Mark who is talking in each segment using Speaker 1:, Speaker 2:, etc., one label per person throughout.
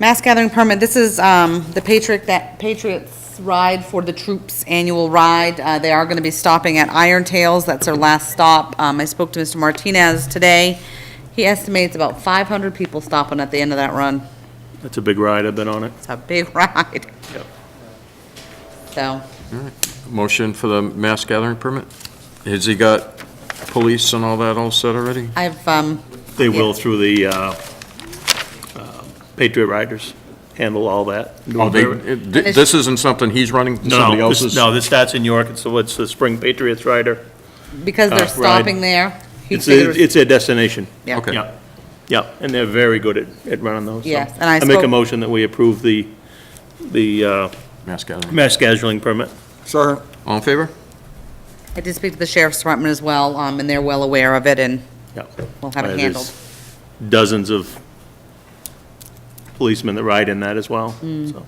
Speaker 1: Mass gathering permit, this is um, the Patriot, that Patriots Ride for the Troops Annual Ride. Uh, They are going to be stopping at Iron Tails, that's their last stop. Um, I spoke to Mr. Martinez today. He estimates about 500 people stopping at the end of that run.
Speaker 2: That's a big ride, I've been on it.
Speaker 1: It's a big ride.
Speaker 2: Yep.
Speaker 1: So,
Speaker 3: Motion for the mass gathering permit? Has he got police and all that all set already?
Speaker 1: I've, um,
Speaker 2: They will through the uh, uh, Patriot Riders, handle all that.
Speaker 3: Oh, they, it- thi- this isn't something he's running, somebody
Speaker 2: No, this-
Speaker 3: else's?
Speaker 2: no, this starts in York, and so it's the Spring Patriots Rider.
Speaker 1: because
Speaker 2: Uh,
Speaker 1: they're
Speaker 2: ride.
Speaker 1: stopping there. he
Speaker 2: It's, a-
Speaker 1: figures-
Speaker 2: it's their destination.
Speaker 1: yeah.
Speaker 3: Okay.
Speaker 2: Yeah, yeah, and they're very good at, at running those. so.
Speaker 1: Yes, and I
Speaker 2: make a
Speaker 1: spoke-
Speaker 2: motion that we approve the, the uh,
Speaker 3: Mass gathering.
Speaker 2: mass scheduling permit.
Speaker 4: Second.
Speaker 3: All in favor?
Speaker 1: I did speak to the sheriff's department as well, um, and they're well aware of it, and
Speaker 2: Yeah.
Speaker 1: we'll have
Speaker 2: Uh,
Speaker 1: it
Speaker 2: there's
Speaker 1: handled.
Speaker 2: Dozens of policemen that ride in that as well,
Speaker 1: Hmm.
Speaker 2: so.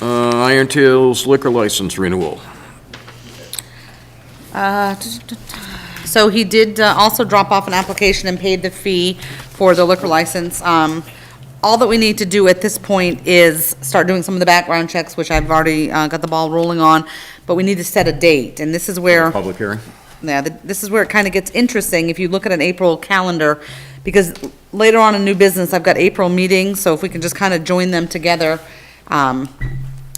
Speaker 3: Uh, Iron Tail's liquor license renewal.
Speaker 1: Uh, So he did uh, also drop off an application and paid the fee for the liquor license. Um, All that we need to do at this point is start doing some of the background checks, which I've already uh, got the ball rolling on, but we need to set a date, and this is where.
Speaker 3: Public hearing.
Speaker 1: Now, th- this is where it kind of gets interesting, if you look at an April calendar, because later on in new business, I've got April meetings, so if we can just kind of join them together. Um,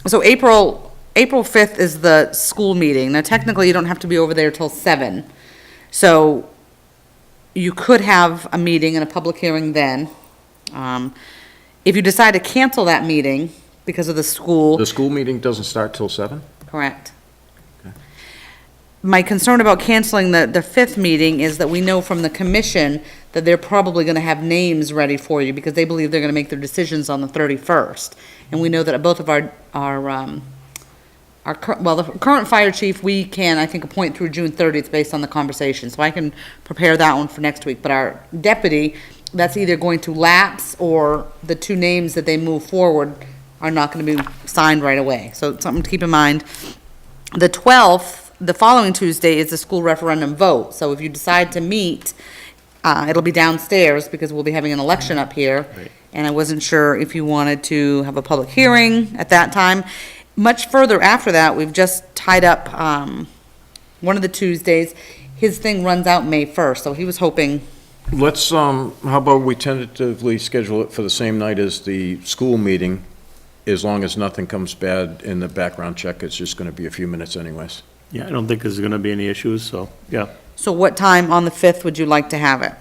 Speaker 1: So April, April 5th is the school meeting. Now technically, you don't have to be over there till seven. So you could have a meeting and a public hearing then. Um, If you decide to cancel that meeting because of the school.
Speaker 3: The school meeting doesn't start till seven?
Speaker 1: Correct. My concern about canceling the, the fifth meeting is that we know from the commission that they're probably gonna have names ready for you, because they believe they're gonna make their decisions on the thirty-first. And we know that both of our, our, um, our, cur- well, the current fire chief, we can, I think, appoint through June thirtieth based on the conversation, so I can prepare that one for next week. But our deputy, that's either going to lapse, or the two names that they move forward are not gonna be signed right away. So it's something to keep in mind. The twelfth, the following Tuesday, is the school referendum vote, so if you decide to meet, uh, it'll be downstairs, because we'll be having an election up here. And I wasn't sure if you wanted to have a public hearing at that time. Much further after that, we've just tied up, um, one of the Tuesdays. His thing runs out May first, so he was hoping,
Speaker 3: Let's, um, how about we tentatively schedule it for the same night as the school meeting, as long as nothing comes bad in the background check, it's just gonna be a few minutes anyways.
Speaker 2: Yeah, I don't think there's going to be any issues, so, yeah.
Speaker 1: so what time on the fifth would you like to have it?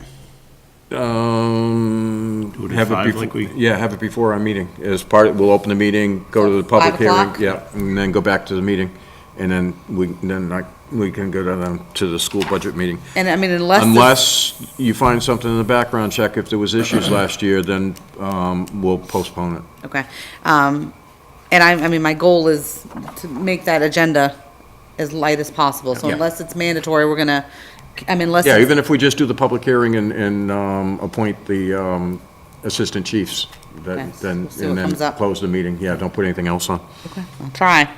Speaker 3: Um.
Speaker 2: Do it at
Speaker 3: have
Speaker 2: five,
Speaker 3: befo-
Speaker 2: like we-
Speaker 3: Yeah, have it before our meeting, as part, we'll open the meeting, go to the public
Speaker 1: Five
Speaker 3: hearing,
Speaker 1: o'clock?
Speaker 3: yeah, and then go back to the meeting, and then we, then I, we can go to the, to the school budget meeting.
Speaker 1: And I mean, unless. the-
Speaker 3: Unless you find something in the background check, if there was issues
Speaker 1: Uh-huh.
Speaker 3: last year, then, um, we'll postpone it.
Speaker 1: Okay. Um, and I, I mean, my goal is to make that agenda as light as possible. So
Speaker 3: Yeah.
Speaker 1: unless it's mandatory, we're gonna, I mean, unless.
Speaker 3: Yeah,
Speaker 1: it's-
Speaker 3: even if we just do the public hearing and, and, um, appoint the, um, assistant chiefs,
Speaker 1: Okay,
Speaker 3: then, then,
Speaker 1: we'll see what
Speaker 3: and
Speaker 1: comes
Speaker 3: then
Speaker 1: up.
Speaker 3: close the meeting, yeah, don't put anything else on.
Speaker 1: I'll Try.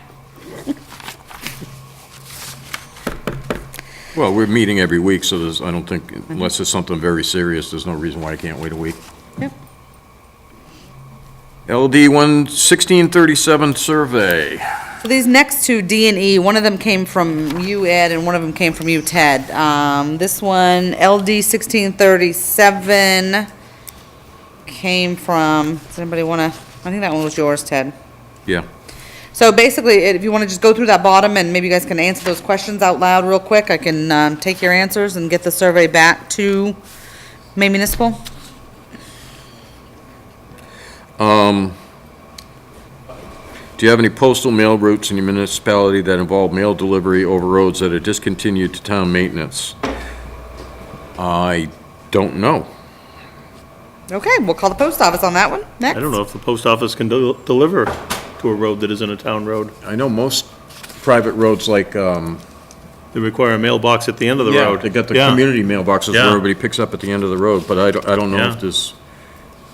Speaker 3: Well, we're meeting every week, so there's, I don't think, unless it's something very serious, there's no reason why I can't wait a week.
Speaker 1: Yep.
Speaker 3: LD one sixteen thirty-seven survey.
Speaker 1: So these next two, D and E, one of them came from you, Ed, and one of them came from you, Ted. Um, this one, LD sixteen thirty-seven came from, does anybody wanna, I think that one was yours, Ted.
Speaker 3: Yeah,
Speaker 1: So basically, if you want to just go through that bottom, and maybe you guys can answer those questions out loud real quick, I can um, take your answers and get the survey back to May Municipal.
Speaker 3: do you have any postal mail routes in your municipality that involve mail delivery over roads that are discontinued to town maintenance? I don't know.
Speaker 1: Okay, we'll call the post office on that one next.
Speaker 2: I don't know if the post office can del- deliver to a road that isn't a town road.
Speaker 3: I know most private roads like, um,
Speaker 2: They require a mailbox at the end of the
Speaker 3: yeah,
Speaker 2: road.
Speaker 3: they got the
Speaker 2: Yeah.
Speaker 3: community mailboxes where
Speaker 2: Yeah.
Speaker 3: everybody picks up at the end of the road, but I don't, I don't know
Speaker 2: Yeah.
Speaker 3: if this,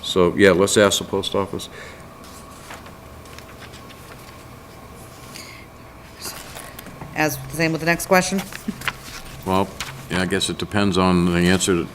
Speaker 3: so, yeah, let's ask the post office.
Speaker 1: As, same with the next question.
Speaker 3: Well, yeah, I guess it depends on the answer